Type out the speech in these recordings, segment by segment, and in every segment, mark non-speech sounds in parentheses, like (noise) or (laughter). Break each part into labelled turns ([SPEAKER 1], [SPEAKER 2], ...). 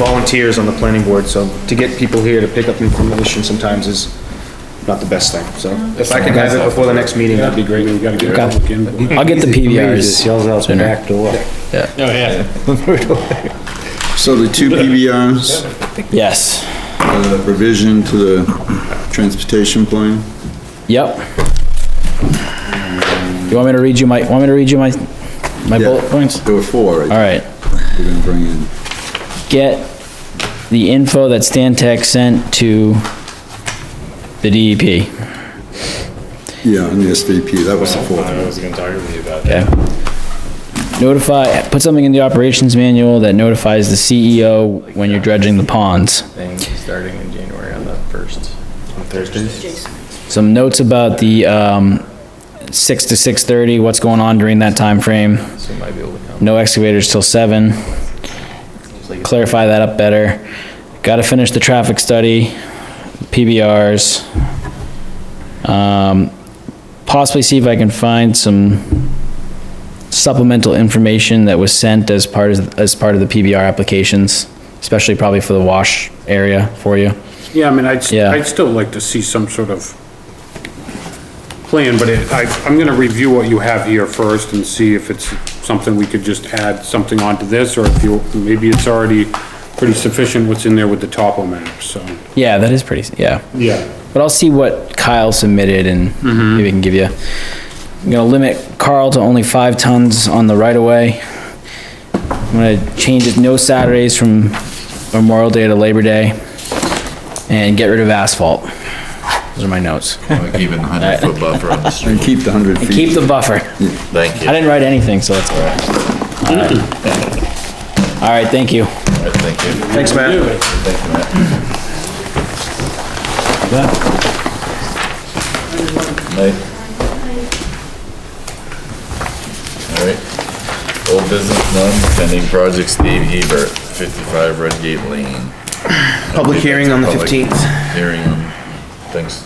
[SPEAKER 1] volunteers on the planning board, so to get people here to pick up information sometimes is not the best thing, so. If I could have it before the next meeting, that'd be great.
[SPEAKER 2] You gotta get public input.
[SPEAKER 3] I'll get the
[SPEAKER 4] Just
[SPEAKER 3] PVRs.
[SPEAKER 4] yells out the
[SPEAKER 3] Sooner.
[SPEAKER 4] back door.
[SPEAKER 5] So the
[SPEAKER 6] (laughs)
[SPEAKER 5] two PBRs,
[SPEAKER 3] Yes.
[SPEAKER 5] uh, revision to the transportation plan?
[SPEAKER 3] Yep. You want me to read you my, want me to read you my, my bullet points?
[SPEAKER 5] There were four,
[SPEAKER 6] Uh,
[SPEAKER 5] right?
[SPEAKER 3] All right.
[SPEAKER 5] We're gonna bring in.
[SPEAKER 3] Get the info that Stan Tech sent to the E DEP.
[SPEAKER 5] Yeah, and the SVP, that was the fourth. one.
[SPEAKER 2] was gonna talk to you about
[SPEAKER 3] Okay. Notify, put something in the operations manual that notifies the CEO when you're dredging the ponds.
[SPEAKER 7] thing starting in January on the first. On Thursdays?
[SPEAKER 3] Some notes about the, um, six to six thirty, what's going on during that time frame.
[SPEAKER 7] So might be able to come.
[SPEAKER 3] No excavators till seven. Clarify that up better. Gotta finish the traffic study, PBRs. Um, possibly see if I can find some supplemental information that was sent as part of, as part of the PBR applications, especially probably for the wash area for you.
[SPEAKER 2] Yeah, I mean, I'd, st-
[SPEAKER 3] Yeah.
[SPEAKER 2] I'd still like to see some sort of plan, but it, I, I'm gonna review what you have here first and see if it's something we could just add something onto this, or if you, maybe it's already pretty sufficient what's in there with the topo map, so.
[SPEAKER 3] Yeah, that is pretty, yeah.
[SPEAKER 2] Yeah.
[SPEAKER 3] But I'll see what Kyle submitted and maybe I can give you. I'm gonna limit Carl to only five tons on the right of way. I'm gonna change it, no Saturdays from Memorial Day to Labor Day. And get rid of asphalt. Those are my notes.
[SPEAKER 6] Keeping the hundred foot buffer on the street,
[SPEAKER 5] And keep the hundred
[SPEAKER 3] And
[SPEAKER 5] feet.
[SPEAKER 3] keep
[SPEAKER 5] (laughs)
[SPEAKER 3] the buffer.
[SPEAKER 6] thank
[SPEAKER 3] I
[SPEAKER 6] you,
[SPEAKER 3] didn't write anything, so that's all right. All right. All right, thank you.
[SPEAKER 6] thank you.
[SPEAKER 1] Thanks, Matt.
[SPEAKER 6] Night. All right, old business none, pending project Steve Hebert, fifty-five Redgate Lane.
[SPEAKER 1] Public hearing on the
[SPEAKER 6] Public
[SPEAKER 1] 15th.
[SPEAKER 6] Hearing, thanks,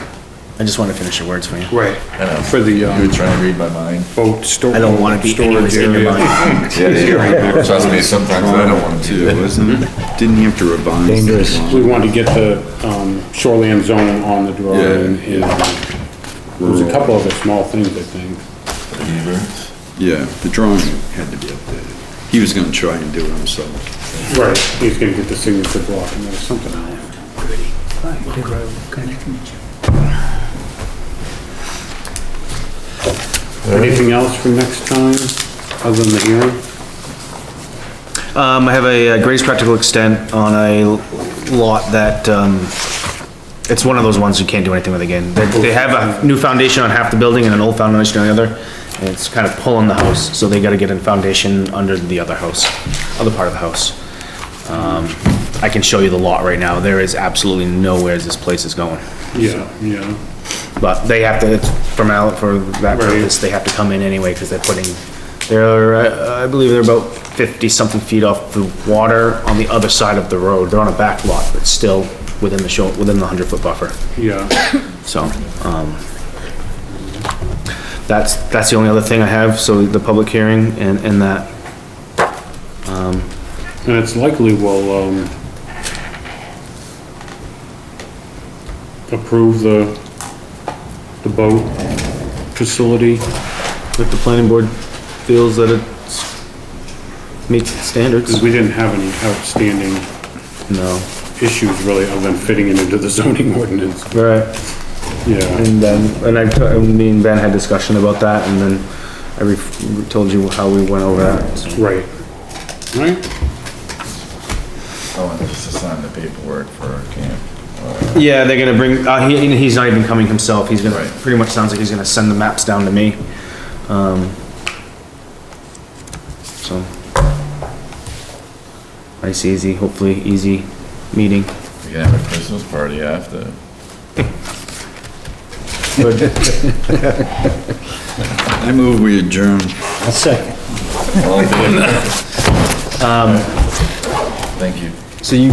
[SPEAKER 1] I just want to finish your words for you.
[SPEAKER 2] Right,
[SPEAKER 6] I know.
[SPEAKER 2] For the, um,
[SPEAKER 6] You were trying to read my mind.
[SPEAKER 2] boat store.
[SPEAKER 1] I don't want to be anywhere in your mind.
[SPEAKER 6] Yeah, (laughs) yeah. (laughs) Trust me, sometimes I don't Mm-hmm. want
[SPEAKER 5] Two,
[SPEAKER 6] to.
[SPEAKER 5] wasn't it? Didn't have to revise.
[SPEAKER 4] Dangerous.
[SPEAKER 2] We want to get the, um, shoreland zone on the drawing, and uh, there's a couple other small things, I think.
[SPEAKER 6] Hebert,
[SPEAKER 5] Yeah, the drawing had to be updated. He was gonna try and do it himself.
[SPEAKER 2] Right, he's gonna get the signature block, and there's something else. Anything else for next time, other than the hearing?
[SPEAKER 1] Um, I have a uh, Grace Practical Extent on a lot that, um, it's one of those ones you can't do anything with again. They, they have a new foundation on half the building and an old foundation on the other, and it's kind of pulling the house, so they gotta get a foundation under the other house, other part of the house. Um, I can show you the lot right now, there is absolutely nowhere this place is going.
[SPEAKER 2] Yeah, yeah,
[SPEAKER 1] But they have to, from out, for that
[SPEAKER 2] Right.
[SPEAKER 1] purpose, they have to come in anyway, because they're putting, they're, uh, I believe they're about fifty-something feet off the water on the other side of the road. They're on a back lot, but still within the show, within the hundred-foot buffer,
[SPEAKER 2] yeah.
[SPEAKER 1] so, um, that's, that's the only other thing I have, so the public hearing and, and that.
[SPEAKER 2] And it's likely we'll, um, approve the, the boat facility.
[SPEAKER 1] If the planning board feels that it meets standards.
[SPEAKER 2] Because we didn't have any outstanding
[SPEAKER 1] No,
[SPEAKER 2] issues really other than fitting it into the (laughs) zoning ordinance.
[SPEAKER 1] right.
[SPEAKER 2] Yeah,
[SPEAKER 1] And then, and I, t- I mean, Ben had discussion about that, and then I re- told you how we went over that.
[SPEAKER 2] right. Right?
[SPEAKER 6] I wanted us to sign the paperwork for our camp.
[SPEAKER 1] Yeah, they're gonna bring, uh, he, and he's not even coming himself, he's gonna,
[SPEAKER 6] Right.
[SPEAKER 1] pretty much sounds like he's gonna send the maps down to me. Um, so. Nice, easy, hopefully easy meeting.
[SPEAKER 6] We can have a Christmas party after.
[SPEAKER 5] I move we adjourn.
[SPEAKER 4] I'll second.
[SPEAKER 6] All in favor? Thank you.
[SPEAKER 1] So you